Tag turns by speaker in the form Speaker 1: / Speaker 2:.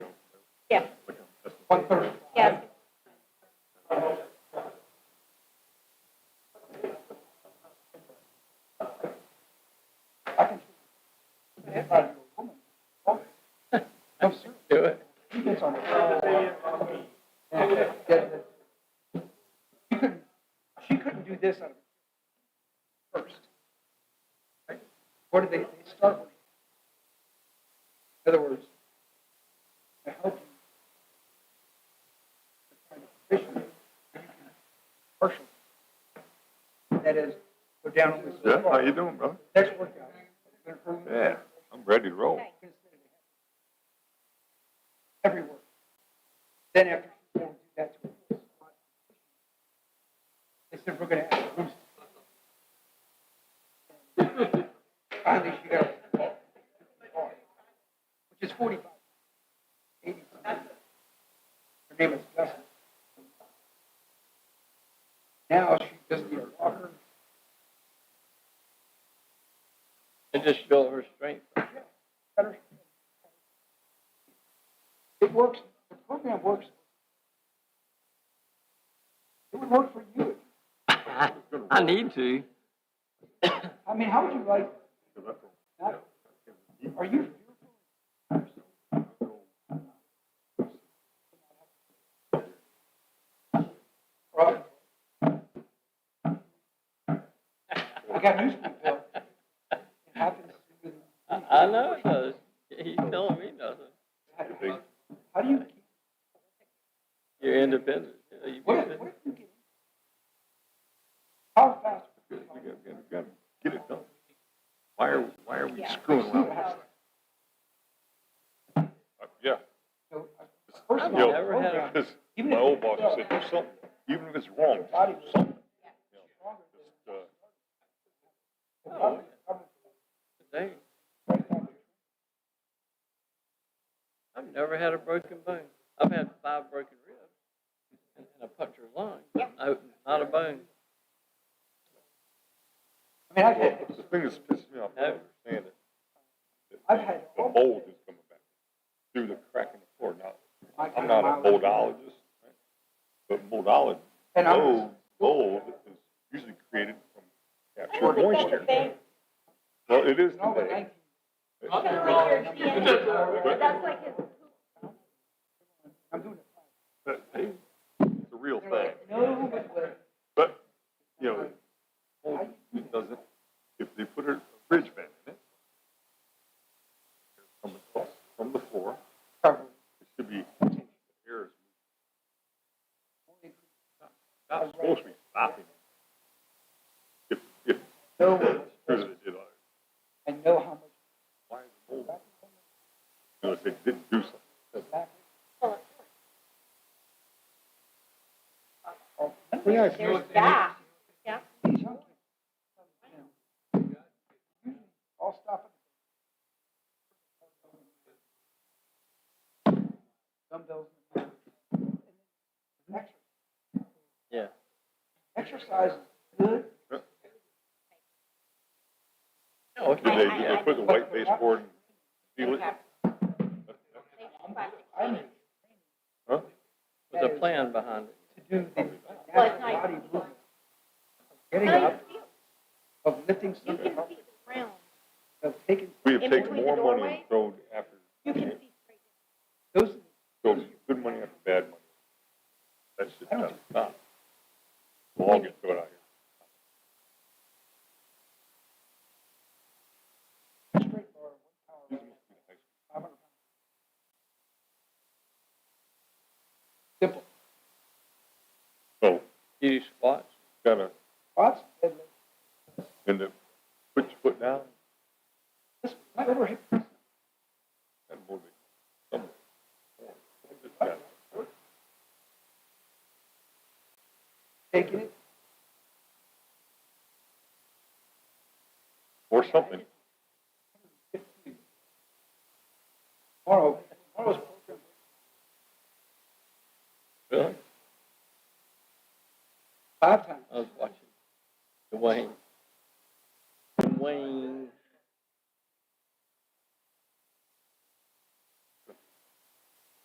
Speaker 1: Yeah.
Speaker 2: One thirty.
Speaker 1: Yes.
Speaker 2: I can. I'm serious.
Speaker 3: Do it.
Speaker 2: He gets on it. Yeah, get it. She couldn't, she couldn't do this out of first. Right? What did they, they start with? In other words, to help you. to find a position where you can Partial. That is, go down on this.
Speaker 4: Yeah, how you doing, brother?
Speaker 2: Next workout. They're hurting.
Speaker 4: Yeah, I'm ready to roll.
Speaker 2: everywhere. Then after she won't do that to her. They said, we're gonna ask Bruce. Finally, she got a call, call, which is forty-five, eighty. Her name is Dustin. Now she just needs a walker.
Speaker 3: And just show her strength.
Speaker 2: better. It works, the program works. It would work for you.
Speaker 3: I need to.
Speaker 2: I mean, how would you like? Not- Are you? Rob? I got news for you, Bill. It happens.
Speaker 3: I, I know it does. He's telling me nothing.
Speaker 2: How do you, keep-
Speaker 3: You're independent. You know, you
Speaker 2: what, what do you get? How fast?
Speaker 4: You gotta- you gotta- you gotta Get it done. Why are, why are we screwing around with this? Uh, Yeah.
Speaker 2: So, uh, first of
Speaker 3: I've
Speaker 2: all,
Speaker 3: never had a-
Speaker 2: program-
Speaker 4: Because
Speaker 2: even
Speaker 4: my
Speaker 2: if-
Speaker 4: old boss said, do something, even if it's wrong,
Speaker 2: Body
Speaker 4: do something. Just, uh,
Speaker 3: Oh, yeah. Dang. I've never had a broken bone. I've had five broken ribs and, and a punctured lung. No, not a bone.
Speaker 2: I mean, I've
Speaker 4: well,
Speaker 2: had,
Speaker 4: The thing that's pissing me off, I don't understand it.
Speaker 2: I've had-
Speaker 4: The mold is coming back through the crack in the floor. Now,
Speaker 2: I
Speaker 4: I'm not a moldologist, right? but moldologist,
Speaker 2: And I'm-
Speaker 4: mold, mold is usually created from captured moisture.
Speaker 1: They-
Speaker 4: Well, it is
Speaker 2: no, but
Speaker 4: today.
Speaker 2: I,
Speaker 1: That's like your hand. That's like his.
Speaker 2: I'm doing it.
Speaker 4: But, hey, it's a real thing.
Speaker 2: No, but, but-
Speaker 4: But, you know, mold, it doesn't, if they put a bridge vent in it, from across, from the floor,
Speaker 2: cover.
Speaker 4: it should be, air is not supposed to be stopping. If, if,
Speaker 2: No,
Speaker 4: here's what they did,
Speaker 2: I know how much
Speaker 4: why is the mold? You know, if they didn't do something.
Speaker 2: goes back.
Speaker 1: There's that. Yeah.
Speaker 2: These young kids, you know, usually I'll stop at- Dumbbells. Exercise. Exercise
Speaker 3: Yeah.
Speaker 2: is good.
Speaker 3: No,
Speaker 4: Did they, did they put the white baseboard and seal it?
Speaker 2: I need
Speaker 4: Huh?
Speaker 3: There's a plan behind it.
Speaker 2: to do the
Speaker 1: Well, it's nice.
Speaker 2: natural body movement.
Speaker 1: No,
Speaker 2: Getting
Speaker 1: you
Speaker 2: up,
Speaker 1: feel-
Speaker 2: of lifting
Speaker 1: you
Speaker 2: something
Speaker 1: can
Speaker 2: up,
Speaker 1: see the ground.
Speaker 2: of taking
Speaker 4: We have
Speaker 1: In
Speaker 4: taken
Speaker 1: between
Speaker 4: more
Speaker 1: the
Speaker 4: money
Speaker 1: doorway?
Speaker 4: and thrown after,
Speaker 1: You can see straight.
Speaker 2: those,
Speaker 4: thrown good money after bad money. That shit
Speaker 2: I don't
Speaker 4: doesn't stop. We'll all get thrown out here.
Speaker 2: straight bar, one power, five hundred pounds. Simple.
Speaker 4: So,
Speaker 3: Do you squats?
Speaker 4: gotta
Speaker 2: Lots, and
Speaker 4: end up, put your foot down,
Speaker 2: this, my overhead press,
Speaker 4: and move it somewhere. Just gotta-
Speaker 2: taking it,
Speaker 4: Or something.
Speaker 2: tomorrow, tomorrow's program,
Speaker 4: Really?
Speaker 2: five times.
Speaker 3: I was watching Dwayne. Dwayne